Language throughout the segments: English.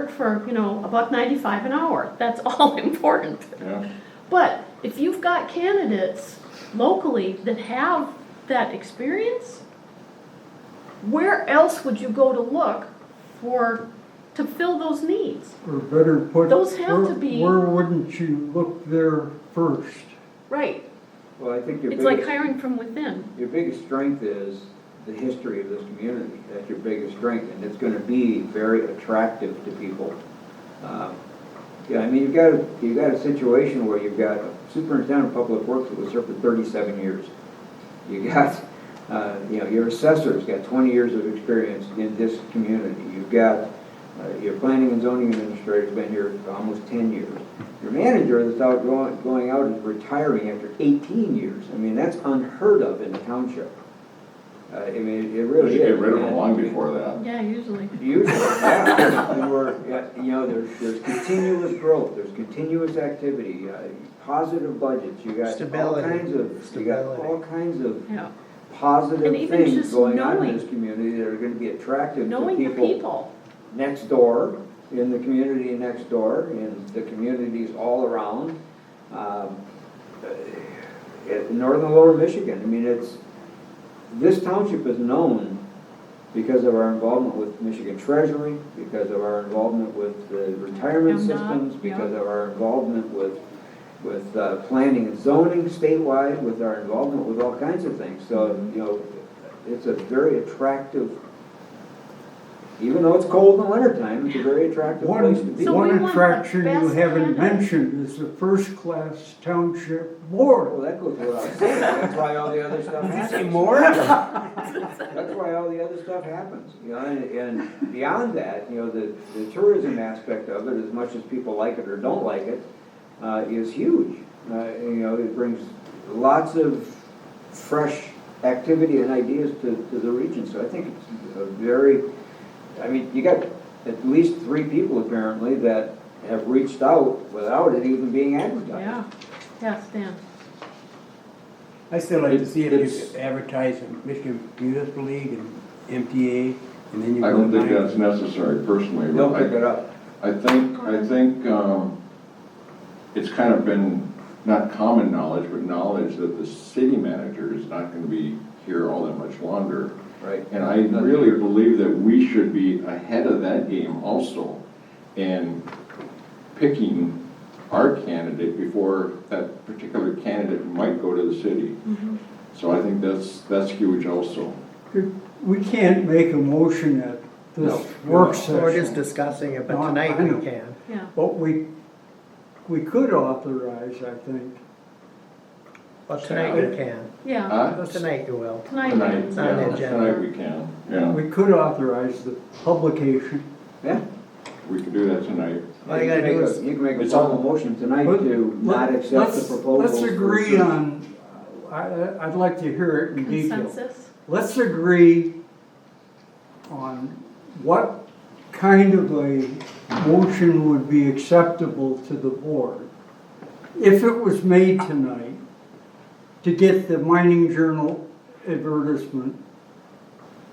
work for, you know, a buck ninety-five an hour. That's all important. Yeah, But if you've got candidates locally that have that experience, where else would you go to look for, to fill those needs? Or better put. Those have to where- be- Where wouldn't you look there first? Right, Well, I think your it's like biggest, hiring from within. your biggest strength is the history of this community. That's your biggest strength, and it's gonna be very attractive to people. Um, Yeah, I mean, you've got, a- you've got a situation where you've got a superintendent of public works that was here for thirty-seven years. You got, uh, you know, your assessor's got twenty years of experience in this community. You've got, uh, your planning and zoning administrator's been here for almost ten years. Your manager that's out going, going out and retiring after eighteen years. I mean, that's unheard of in a township. Uh, I mean, it you really is. should get rid of them And- long before that. Yeah, usually. Usually, yeah, and we're, yeah, you know, there's, there's continuous growth, there's continuous activity, uh, positive budgets, you got all Stability. kinds of, you got Stability. all kinds of Yeah, And positive even things just going on knowing- in this community that are gonna be attractive to knowing the people people. next door, in the community next door, in the communities all around. um, uh, in Northern Lower Michigan, I mean, it's, this township is known because of our involvement with Michigan Treasury, because of our involvement with the retirement MDOT, systems, yeah. because of our involvement with, with uh, planning and zoning statewide, with our involvement with all kinds of things. So, you know, it's a very attractive, even though it's cold in the wintertime, it's a very attractive One, place to be. So we want one the attraction you best haven't candidate. mentioned is the first-class township Well, board. that goes without saying, that's why all the other stuff happens. That's why all the other stuff happens, you know, and, and beyond that, you know, the, the tourism aspect of it, as much as people like it or don't like it, uh, is huge. Uh, you know, it brings lots of fresh activity and ideas to, to the region, so I think it's a very, I mean, you got at least three people apparently that have reached out without it even being advertised. Yeah, yeah, Stan. I still like to see if you It's- could advertise in Michigan Municipal League and MTA, and then you. I don't go think nine. that's necessary personally. They'll I- pick it up. I think, I think, um, it's kind of been, not common knowledge, but knowledge that the city manager is not gonna be here all that much longer. Right. And I really believe that we should be ahead of that game also in picking our candidate before that particular candidate might go to the city. Mm-hmm. So I think that's, that's huge also. We can't make a motion at this No. work We're just session, discussing it, but No, I tonight we know. can. Yeah, but we, we could authorize, I think. Well, tonight you can. yeah. Huh? Well, tonight you will. Tonight, Uh, Tonight, it's on the yeah, agenda. tonight we can, yeah, We could authorize the publication. Yeah. we can do that tonight. All you gotta can do make a- is, You can make a It's all- formal motion tonight But to not let- accept the let's- proposal. Let's agree on, I, I'd like to hear it in detail. Consensus? Let's agree on what kind of a motion would be acceptable to the board if it was made tonight to get the mining journal advertisement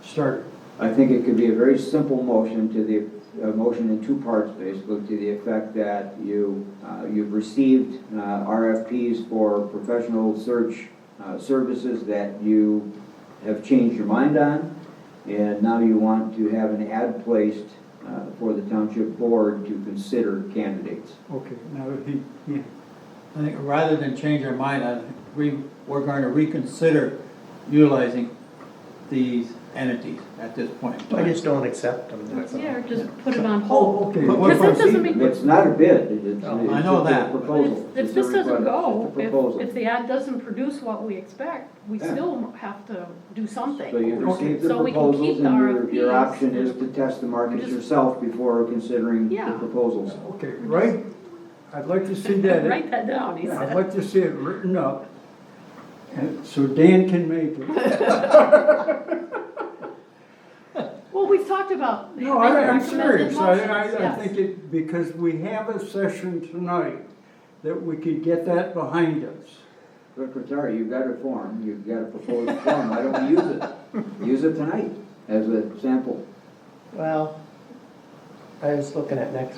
started. I think it could be a very simple motion to the, a motion in two parts, basically, to the effect that you, uh, you've received uh, RFPs for professional search uh, services that you have changed your mind on, and now you want to have an ad placed uh, for the township board to consider candidates. Okay, now he, yeah. I think rather than change our mind, I think we, we're going to reconsider utilizing these entities at this point. in I time. just don't accept them, that's all. Yeah, or just put it on hold. Oh, okay. But Because that doesn't make, It's not a bid, it's, it's No, Oh, I know just a that. if, proposal. if It's a this doesn't request. go, It's a proposal. if, if the ad doesn't produce what we expect, we Yeah. still have to do So something. you've received the So we can keep proposals, the and your, your RFPs. option is to test the market Just- yourself before considering the Yeah. proposals. Okay, right, I'd like to see that. Write that down, he Yeah, I'd said. like to see it written up, and so Dan can make it. Well, we've talked about. No, I- I'm recommended serious, I, motions, I, I yes. think it, because we have a session tonight, that we could get that behind us. Secretary, you've got a form, you've got a proposed form, why don't we use it? Use it tonight as a sample. Well, I was looking at next